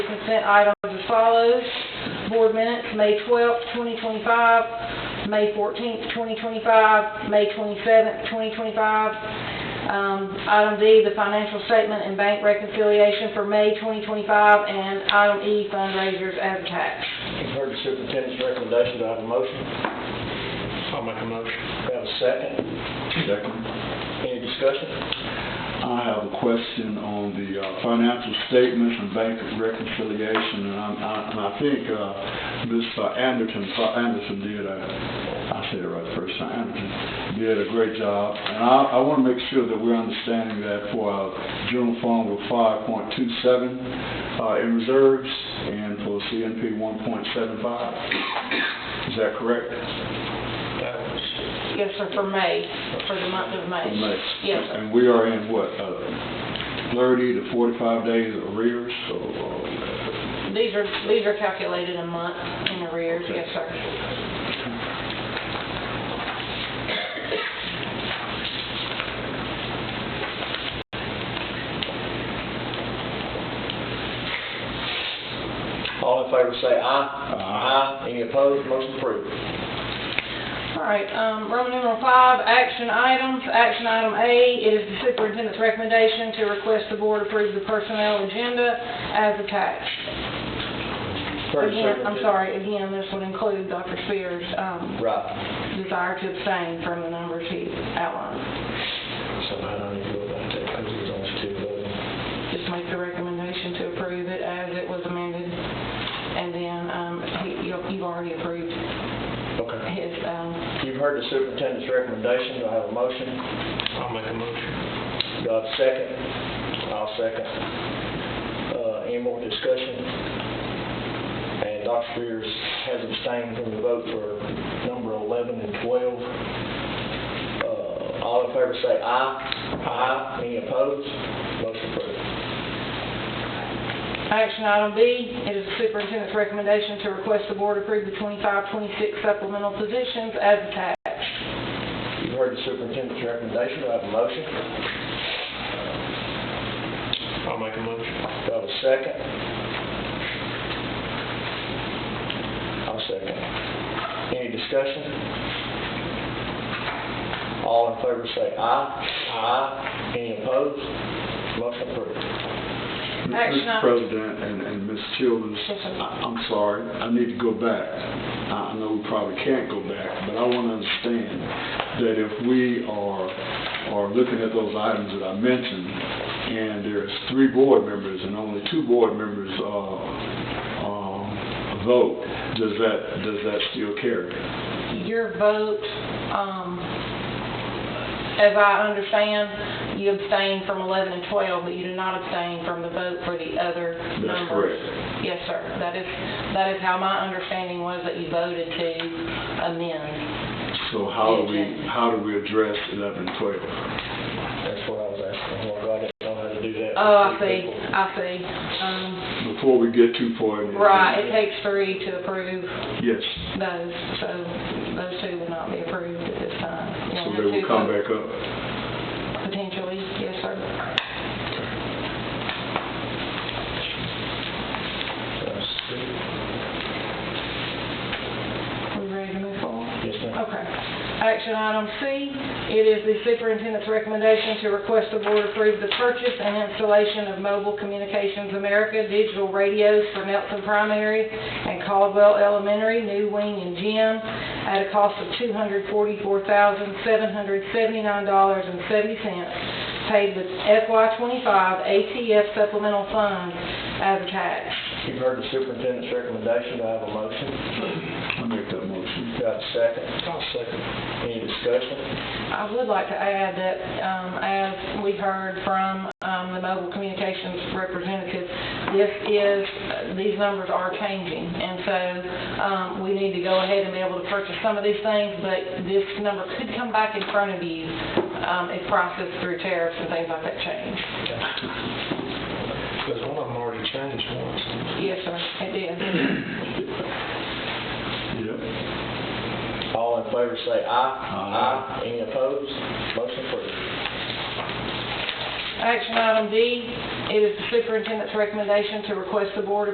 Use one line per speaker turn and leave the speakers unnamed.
consent items as follows. Board minutes, May twelfth, twenty twenty-five, May fourteenth, twenty twenty-five, May twenty-seventh, twenty twenty-five. Um, item D, the financial statement and bank reconciliation for May twenty twenty-five, and item E, fundraisers as attached.
You've heard the superintendent's recommendation, do I have a motion?
I'll make a motion.
Do I have a second?
Second.
Any discussion?
I have a question on the uh, financial statements and bank reconciliation, and I'm- I and I think uh, Ms. Anderson, Anderson did, a- I said it right the first time, Anderson did a great job, and I want to make sure that we're understanding that for our general fund, we're 5.27 uh, in reserves, and for CNP, 1.75. Is that correct?
That was,
Yes, sir, for May, for the month of May.
from next.
Yes, sir.
And we are in what, uh, thirty to forty-five days arrears, so, uh,
These are, these are calculated a month in arrears, yes, sir.
All in favor say aye.
Aye.
Any opposed, motion approved.
All right, um, Roman numeral five, action items. Action item A, it is the superintendent's recommendation to request the board approve the personnel agenda as attached.
Heard the
Again, I'm
superintendent-
sorry, again, this would include Dr. Spears' um,
Right.
desire to abstain from the numbers he outlined.
So I don't need to go about that, because it was only two voting.
Just make the recommendation to approve it as it was amended, and then um, he- you- you've already approved
Okay.
his um,
You've heard the superintendent's recommendation, do I have a motion?
I'll make a motion.
Do I have a second? I'll second. Uh, any more discussion? And Dr. Spears has abstained from the vote for number eleven and twelve. Uh, all in favor say aye. Aye. Any opposed? Motion approved.
Action item B, it is the superintendent's recommendation to request the board approve the 25-26 supplemental positions as attached.
You've heard the superintendent's recommendation, do I have a motion?
I'll make a motion.
Do I have a second? I'll second. Any discussion? All in favor say aye. Aye. Any opposed? Motion approved.
Action
Mr.
item-
President and, and Ms. Childers,
Yes, sir.
I- I'm sorry, I need to go back. I I know we probably can't go back, but I want to understand that if we are, are looking at those items that I mentioned, and there's three board members and only two board members, uh, um, vote, does that, does that still carry?
Your vote, um, as I understand, you abstained from 11 and 12, but you do not abstain from the vote for the other
That's
numbers. Yes, sir. That is, that is how my understanding was that you voted to amend.
So how do we, how do we address eleven and twelve?
That's what I was asking. Well, God, I didn't know how to do that.
Oh, I
Three
see,
people.
I see. Um,
Before we get too far. in the-
Right, it takes three to approve.
Yes,
those, so those two would not be approved at this time.
so they will come back up.
Potentially, yes, sir.
Let's see.
We ready to move forward?
Yes, ma'am.
Okay. Action item C, it is the superintendent's recommendation to request the board approve the purchase and installation of Mobile Communications America digital radios for Nelson Primary and Caldwell Elementary, New Wing and Gym, at a cost of $244,779.70, paid with FY25 ATF supplemental funds as attached.
You've heard the superintendent's recommendation, do I have a motion?
I'll make that motion.
Do I have a second? I'll second. Any discussion?
I would like to add that, um, as we heard from, um, the mobile communications representative, this is, these numbers are changing. And so, um, we need to go ahead and be able to purchase some of these things, but this number could come back in front of you, um, if prices through tariffs and things like that change.
Because one of them already changed once.
Yes, sir, it is.
Yep.
All in favor say aye.
Aye.
Any opposed? Motion approved.
Action item D, it is the superintendent's recommendation to request the board